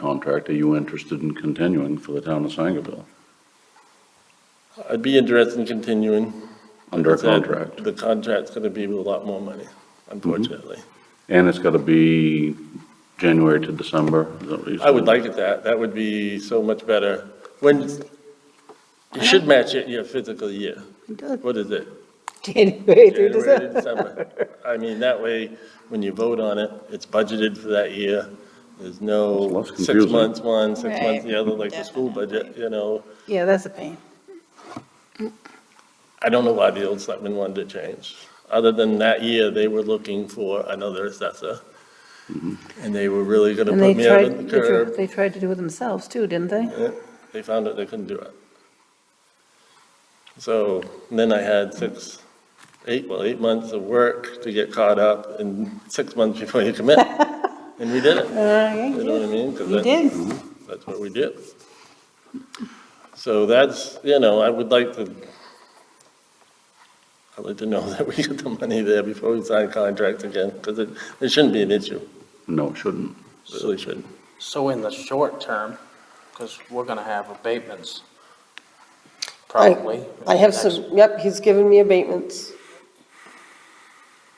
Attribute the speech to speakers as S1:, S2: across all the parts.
S1: contract, are you interested in continuing for the town of Sangerville?
S2: I'd be interested in continuing.
S1: Under a
S2: Like I said,
S1: contract?
S2: The contract's gonna be with a lot more money, unfortunately.
S1: Mm-hmm. And it's gotta be January to December, is that what you said?
S2: I would like it that, that would be so much better. When, you should match it your physical year. What is it?
S3: January through
S2: January
S3: December.
S2: to December. I mean, that way, when you vote on it, it's budgeted for that year. There's
S1: It's
S2: no
S1: less
S2: six
S1: confusing.
S2: months one, six
S4: Right,
S2: months the other, like the school budget, you know?
S3: Yeah, that's a pain.
S2: I don't know why the old selectmen wanted to change. Other than that year, they were looking for another assessor. And they were really gonna
S3: And they
S2: put me out
S3: tried,
S2: in the
S3: they tr-
S2: curb.
S3: they tried to do it themselves too, didn't they?
S2: Yeah, They found out they couldn't do it. So then I had six, eight, well, eight months of work to get caught up and six months before you commit. And we did it. You know what I
S3: Uh,
S2: mean? 'Cause
S3: You
S2: that's-
S3: did.
S2: That's what we do. So that's, you know, I would like to, I'd like to know that we get the money there before we sign contracts again, because it, it shouldn't be an issue,
S1: No, it shouldn't.
S2: It really shouldn't.
S5: So in the short term, because we're gonna have abatements, probably.
S6: I have some, yep, he's given me abatements.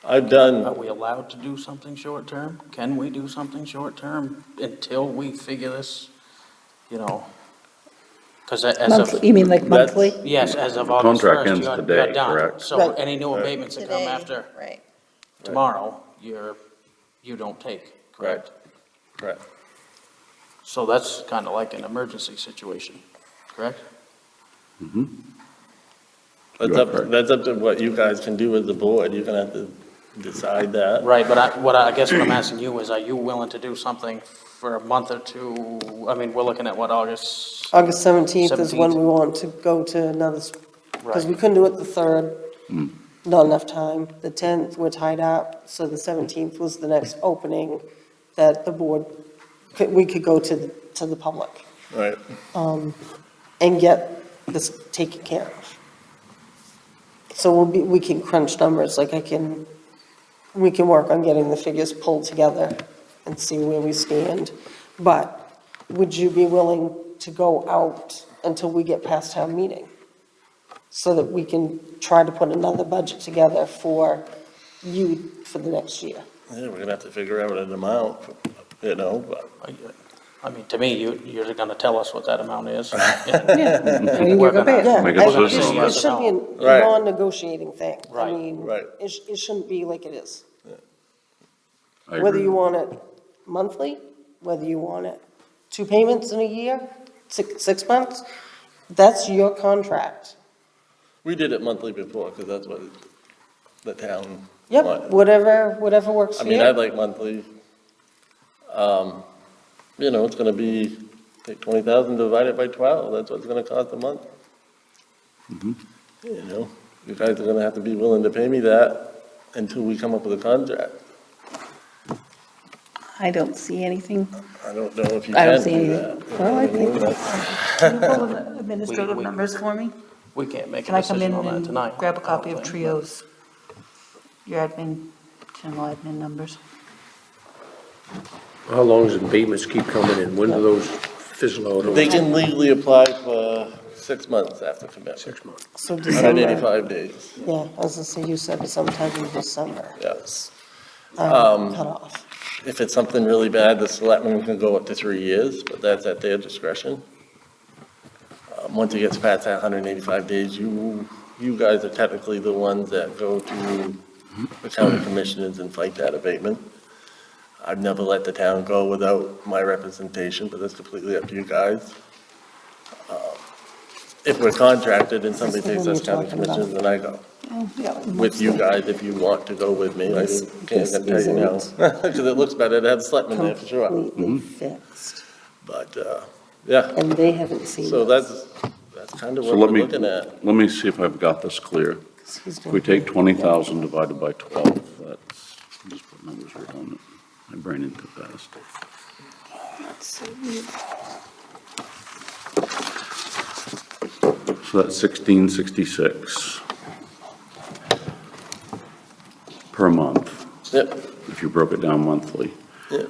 S2: I've done,
S5: Are we allowed to do something short term? Can we do something short term until we figure this, you know? Because as
S3: Monthly,
S5: of,
S3: you mean like
S2: That's-
S3: monthly?
S5: yes, as of
S1: The
S5: August
S1: contract
S5: first,
S1: ends
S5: you're,
S1: today,
S5: you're done.
S1: correct?
S5: So
S6: Right.
S5: any new abatements that come
S4: Today,
S5: after
S4: Right.
S5: tomorrow, you're, you don't take, correct?
S2: Correct.
S5: So that's kind of like an emergency situation, correct?
S2: that's
S1: You are
S2: up,
S1: correct.
S2: that's up to what you guys can do as a board, you're gonna have to decide that.
S5: Right, but I, what I, I guess what I'm asking you is, are you willing to do something for a month or two? I mean, we're looking at what,
S3: Uh,
S5: August?
S6: August 17th is when
S5: 17th.
S6: we want to go to another, because we
S5: Right. Hmm.
S6: couldn't do it the 3rd. Not enough time. The 10th, we're tied up, so the 17th was the next opening that the board, could- we could go to, the- to the public
S2: Right.
S6: and get this taken care of. So we'll be, we can crunch numbers, like I can, we can work on getting the figures pulled together and see where we stand. But would you be willing to go out until we get past town meeting? So that we can try to put another budget together for you for the next year?
S2: Yeah, we're gonna have to figure out an amount, you know, but
S5: I mean, to me, you, you're gonna tell us what that amount is.
S3: I mean, you're
S5: We're
S3: gonna pay
S5: gonna-
S3: it.
S6: Yeah,
S1: Make it
S6: I-
S1: decision
S6: it should-
S1: on
S6: It
S5: that.
S6: should be a
S2: Right.
S6: non-negotiating thing. I
S5: Right.
S6: mean,
S2: Right.
S6: it, sh- it shouldn't be like it is.
S1: I agree.
S6: whether you want it monthly, whether you want it two payments in a year, six, six months, that's your contract.
S2: we did it monthly before, because that's what the town
S6: Yep,
S2: wanted.
S6: whatever, whatever works
S2: I
S6: for
S2: mean, I'd
S6: you.
S2: like monthly. Um, You know, it's gonna be, take twenty thousand divided by twelve, that's what it's gonna cost a month.
S3: Mm-hmm.
S2: You know, you guys are gonna have to be willing to pay me that until we come up with a contract.
S3: I don't see anything.
S2: I don't know if you
S3: I don't
S2: can
S3: see
S2: do
S3: anything.
S2: that.
S3: Well, I think-
S2: think.
S3: Can you pull the administrative
S5: We- we-
S3: numbers for me?
S5: We can't make
S3: Can
S5: a
S3: I come
S5: decision
S3: in
S5: on that tonight.
S3: and grab a
S5: I don't
S3: copy of
S5: think.
S3: Trio's, your admin, general admin numbers?
S7: How long does abatements keep coming in? When do those fizzle out?
S2: They
S7: over
S2: can legally apply for six months after commitment,
S7: Six months.
S6: So
S2: hundred and
S6: December,
S2: eighty-five days,
S6: yeah, as I say, you said sometime in December,
S2: yes.
S6: um, cut off.
S2: If it's something really bad, the selectmen can go up to three years, but that's at their discretion. Um, Once it gets past that 185 days, you, you guys are technically the ones that go to the county commissioners and fight that abatement. I've never let the town go without my representation, but that's completely up to you guys. Um, If we're contracted and somebody
S6: That's the
S2: takes
S6: one
S2: us
S6: you're
S2: county
S6: talking about.
S2: commissioners, then I go
S3: Oh, Yeah.
S2: with you guys if you want to go with me. I
S6: This-
S2: just can't
S6: this
S2: tell you now. Because it looks better to have selectmen there for sure. Mm-hmm.
S6: Completely fixed,
S2: But, uh, yeah,
S6: and they haven't seen
S2: so
S6: this.
S2: that's, that's kind of
S1: So
S2: what
S1: let
S2: we're
S1: me,
S2: looking at.
S1: let me see if I've got this clear.
S6: He's
S1: If we
S6: gonna-
S1: take twenty thousand divided by twelve, that's, just put numbers right on it. My brain ain't too fast. So that's sixteen sixty-six per month,
S2: Yep,
S1: if you broke it down monthly.
S2: yep.